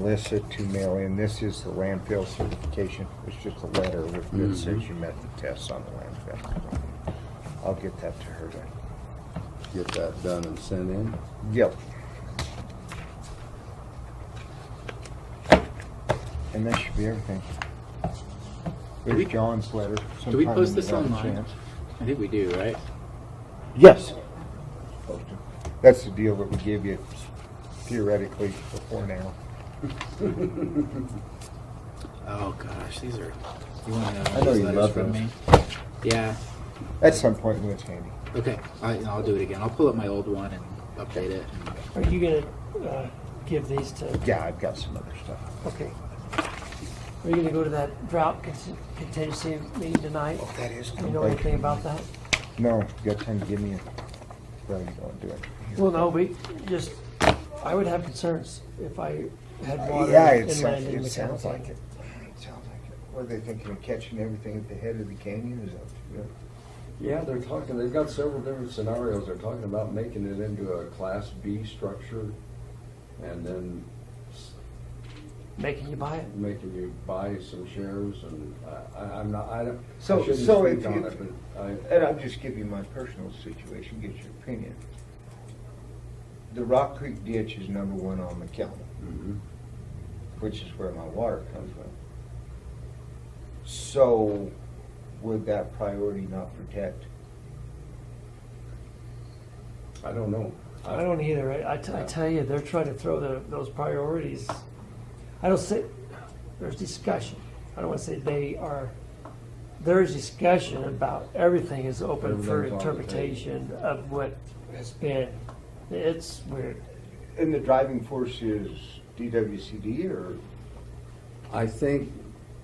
Melissa to mail in. This is the landfill certification. It's just a letter with Mm-hmm. that says you met the tests on the landfill. I'll get that to her then. Get that done and sent in. Yep. And that should be everything. Do we- There's John's letter. Do we Sometime post when you this have a online? chance. I think we do, right? Yes. Post it. That's the deal that we give you theoretically before now. Oh gosh, these are. You want to know? I those know you letters love from those. me? Yeah. At some point when it's handy. Okay. I, I'll do it again. I'll pull up my old one and update it. Are you gonna uh, give these to, Yeah, I've got some other stuff. okay. Are you gonna go to that drought con- contingency meeting tonight? Oh, that is. Do you know anything about that? No, you got time to give me a, no, you don't do it. Well, no, we just, I would have concerns if I had water Yeah, it inland sounds, in it McAllen. sounds like it. It sounds like it. What are they thinking of catching everything at the head of the canyon? Is that, Yeah, they're talking, they've got several different scenarios. They're talking about making it into a Class B structure and then s- Making you buy it. making you buy some shares and I- I, I'm not, I don't. I So- shouldn't so speak if on you- it, but I- And I'll just give you my personal situation, get your opinion. The Rock Creek ditch is number one on McKellen, Mhm. which is where my water comes from. So would that priority not protect? I don't know. I don't either. I, I, t- I tell you, they're trying to throw the, those priorities. I don't say, there's discussion. I don't want to say they are, there is discussion about everything is open for Everything's on the table. interpretation of what has been. It's weird. And the driving force is DWCD or? I think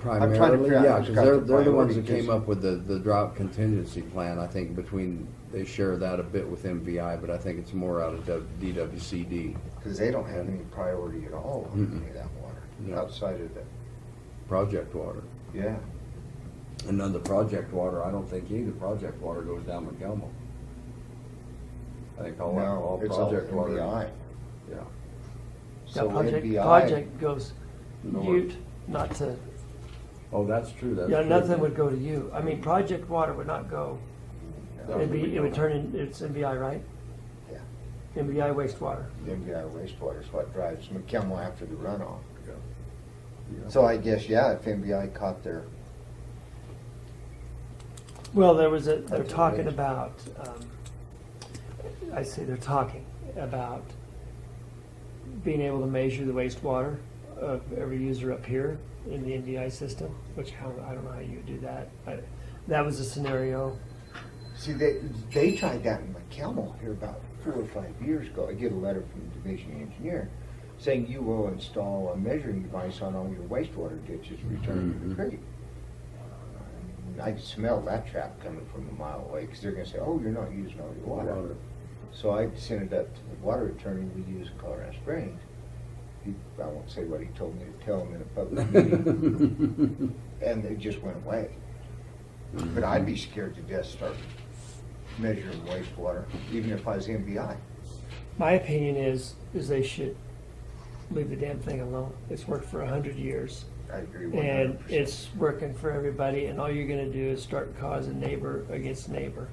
trying to primarily, figure out yeah, who's because got they're, the they're the ones that priority, came 'cause- up with the, the drought contingency plan. I think between, they share that a bit with MVI, but I think it's more out of D- DWCD. Because they don't have any priority at all on any of that water, No. outside of the, Project Water. yeah. And then the Project Water, I don't think either Project Water goes down McElmo. I think all, No, all it's all Project Water. NBI. Yeah. Now, So project, NBI project goes North. Ute, not to, Oh, that's true, that's. yeah, true. nothing would go to you. I mean, project water would not go. That It'd be, it would McElmo. turn in, it's NBI, right? Yeah. NBI wastewater. MDI wastewater is what drives McKemmel after the runoff. Yeah. Yeah. So I guess, yeah, if MBI caught their, Well, there was a, they're That's talking amazing. about, um, I say they're talking about being able to measure the wastewater of every user up here in the NDI system, which how, I don't know how you would do that. I- That was a scenario. see, they, they tried that in McKemmel here about four or five years ago. I get a letter from the division engineer saying you will install a measuring device on all your wastewater ditches returning to the Mhm. creek. And I can smell that trap coming from a mile away, because they're gonna say, oh, you're not using all your water. Water. So I sent it up to the water attorney we use in Colorado Springs. He, I won't say what he told me to tell him in a public meeting, Mm-hmm. and it just went away. But I'd be scared to death start measuring wastewater, even if I was MBI. My opinion is, is they should leave the damn thing alone. It's worked for a hundred years. I agree one And hundred percent. it's working for everybody and all you're gonna do is start causing neighbor against neighbor.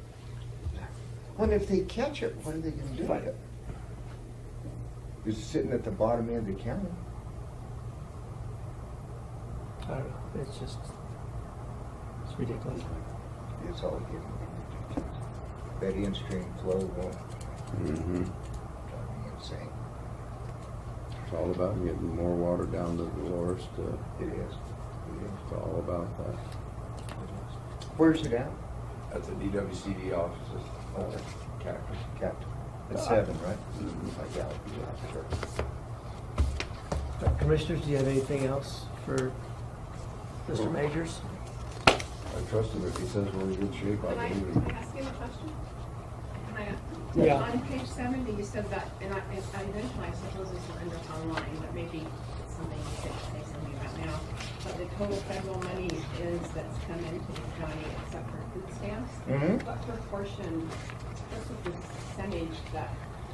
And if they catch it, what are they gonna do with it? It's sitting at the bottom end of the county. I don't know, it's just, it's ridiculous. It's all getting ridiculous. That in-stream flow won't Mhm. drive me insane. It's all about getting more water down to Dolores, to- It is. It is. it's all about that. Where's it at? At the DWCD offices, Cactus. Captain. At seven, right? I doubt, yeah, sure. Uh, Commissioners, do you have anything else for Mr. Majors? I trust him, if he says we're in good shape, Can I I, believe can him. I ask you a question? Can I, Yeah. On page seventy, you said that, and I, I eventually, I suppose this will end up online, but maybe it's something you should say something about now. But the total federal money is, that's come into the county except for food stamps. Mhm. What proportion, what's the percentage that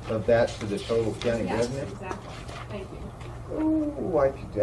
of that to the total county Yes, revenue? exactly, thank you. Oh, I could